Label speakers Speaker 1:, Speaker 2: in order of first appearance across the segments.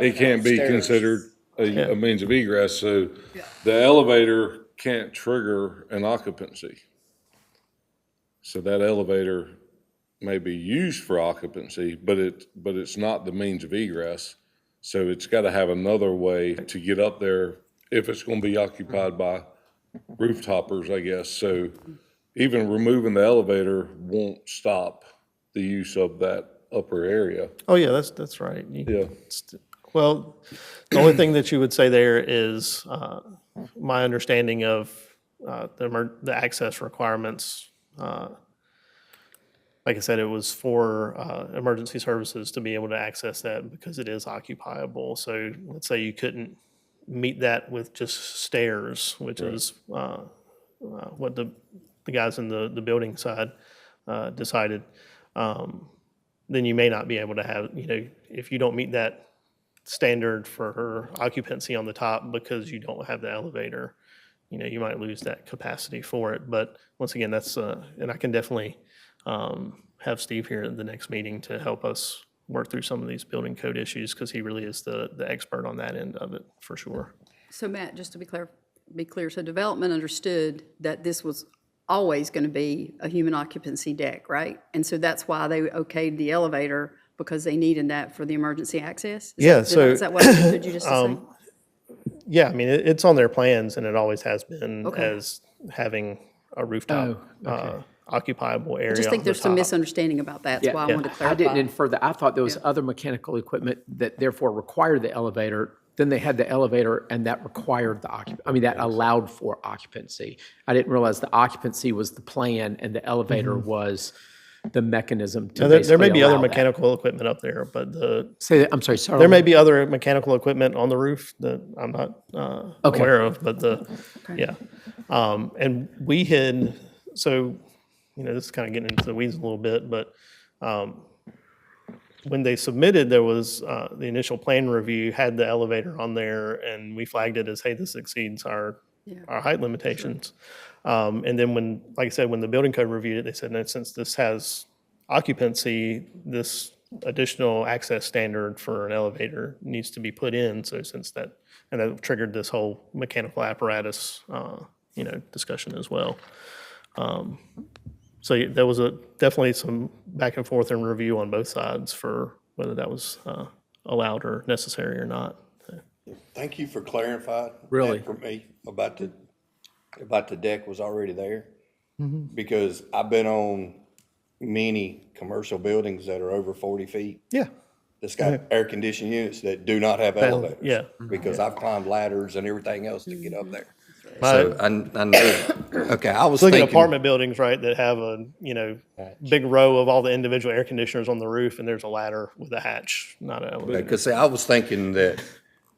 Speaker 1: it can't be
Speaker 2: Stairs.
Speaker 1: considered a, a means of egress, so the elevator can't trigger an occupancy. So that elevator may be used for occupancy, but it, but it's not the means of egress. So it's gotta have another way to get up there if it's gonna be occupied by rooftoppers, I guess. So even removing the elevator won't stop the use of that upper area.
Speaker 3: Oh, yeah, that's, that's right. You-
Speaker 1: Yeah.
Speaker 3: it's- Well, the only thing that you would say there is, uh, my understanding of uh, the emer- the access requirements, uh, like I said, it was for uh, emergency services to be able to access that because it is occupiable. So let's say you couldn't meet that with just stairs, which is uh, uh, what the the guys in the the building side uh, decided. Um, then you may not be able to have, you know, if you don't meet that standard for her occupancy on the top because you don't have the elevator, you know, you might lose that capacity for it. But once again, that's, uh, and I can definitely um, have Steve here at the next meeting to help us work through some of these building code issues because he really is the, the expert on that end of it for sure.
Speaker 4: So Matt, just to be clear, be clear, so development understood that this was always going to be a human occupancy deck, right? And so that's why they okayed the elevator, because they needed that for the emergency access? Is that-
Speaker 3: Yeah,
Speaker 4: did I-
Speaker 3: so- Um,
Speaker 4: Is that what I understood you just to say?
Speaker 3: Yeah, I mean, it, it's on their plans and it always has been
Speaker 4: Okay. Oh,
Speaker 3: as having a rooftop uh, occupiable area.
Speaker 4: I just
Speaker 3: on
Speaker 4: think
Speaker 3: the
Speaker 4: there's some
Speaker 3: top.
Speaker 4: misunderstanding about that, that's why I wanted to
Speaker 2: I didn't
Speaker 4: clarify.
Speaker 2: infer that. I thought there was other mechanical equipment that therefore required the elevator. Then they had the elevator and that required the occup, I mean, that allowed for occupancy. I didn't realize the occupancy was the plan and the elevator was the mechanism to
Speaker 3: Mm-hmm. Now, There, there may
Speaker 2: basically
Speaker 3: be other
Speaker 2: allow that.
Speaker 3: mechanical equipment up there, but the,
Speaker 2: Say, that- I'm sorry, sorry.
Speaker 3: there may be other mechanical equipment on the roof that I'm not uh, aware of, but the, yeah. Um, And we had, so, you know, this is kind of getting into the weeds a little bit, but um, when they submitted, there was, uh, the initial plan review had the elevator on there and we flagged it as, hey, this exceeds our, our height limitations. Um, and then when, like I said, when the building code reviewed it, they said, no, since this has occupancy, this additional access standard for an elevator needs to be put in. So since that, and that triggered this whole mechanical apparatus, uh, you know, discussion as well. Um, So yeah, there was a, definitely some back and forth and review on both sides for whether that was uh, allowed or necessary or not.
Speaker 5: Thank you for clarifying. that
Speaker 2: Really?
Speaker 5: For me, about the, about the deck was already there.
Speaker 3: Mm-hmm.
Speaker 5: Because I've been on many commercial buildings that are over forty feet.
Speaker 3: Yeah.
Speaker 5: That's got air conditioned units that do not have elevators.
Speaker 3: yeah. Uh,
Speaker 5: Because I've climbed ladders and everything else to get up there.
Speaker 3: My-
Speaker 5: So I, I know, okay, I was
Speaker 3: Look at
Speaker 5: thinking.
Speaker 3: apartment buildings, right, that have a, you know, big row of all the individual air conditioners on the roof, and there's a ladder with a hatch, not an elevator.
Speaker 5: Because see, I was thinking that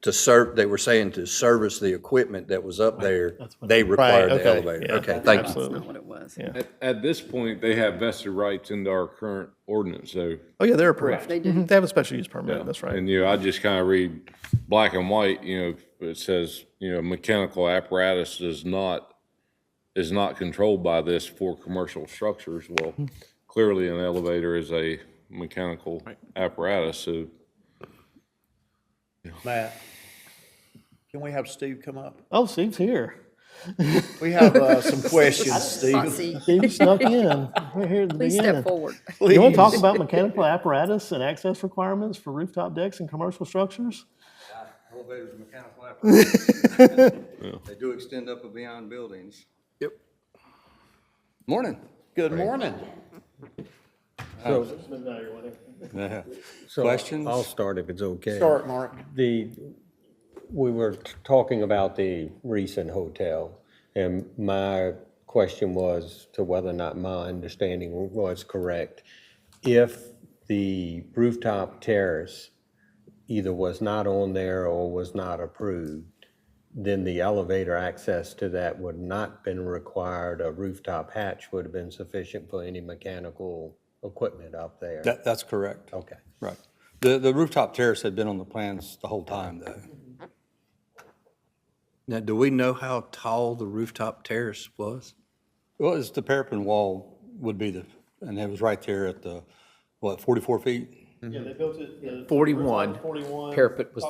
Speaker 5: to serve, they were saying to service the equipment that was up there, they required the
Speaker 3: okay,
Speaker 5: elevator.
Speaker 3: yeah,
Speaker 5: Okay, thank you.
Speaker 4: That's not what it was.
Speaker 1: At, at this point, they have vested rights into our current ordinance, so.
Speaker 3: Oh, yeah, they're approved.
Speaker 4: They do.
Speaker 3: Mhm, They have a special use permit, that's right.
Speaker 1: And, you know, I just kind of read black and white, you know, it says, you know, mechanical apparatus is not, is not controlled by this for commercial structures. Well, clearly an elevator is a mechanical apparatus, so
Speaker 6: Matt, can we have Steve come up?
Speaker 3: Oh, Steve's here.
Speaker 6: We have uh, some questions,
Speaker 4: I
Speaker 6: Steve.
Speaker 4: see.
Speaker 3: Steve snuck in. We're here at the
Speaker 4: Please step forward.
Speaker 3: You want to talk about mechanical apparatus and access requirements for rooftop decks and commercial structures?
Speaker 7: Elevators are mechanical apparatus. They do extend up and beyond buildings. Yep. Morning.
Speaker 6: Good morning.
Speaker 7: So
Speaker 5: Questions?
Speaker 7: I'll start if it's okay.
Speaker 6: Start, Mark.
Speaker 7: The, we were t- talking about the recent hotel, and my question was to whether or not my understanding was correct. If the rooftop terrace either was not on there or was not approved, then the elevator access to that would not been required. A rooftop hatch would have been sufficient for any mechanical equipment up there.
Speaker 8: That, that's correct.
Speaker 6: Oh.
Speaker 7: Okay.
Speaker 8: Right. The, the rooftop terrace had been on the plans the whole time, though.
Speaker 5: Now, do we know how tall the rooftop terrace was?
Speaker 8: Well, it's the parapet wall would be the, and it was right there at the, what, 44 feet?
Speaker 3: Yeah, they built it.
Speaker 2: 41.
Speaker 3: Forty-one.
Speaker 2: Parapet was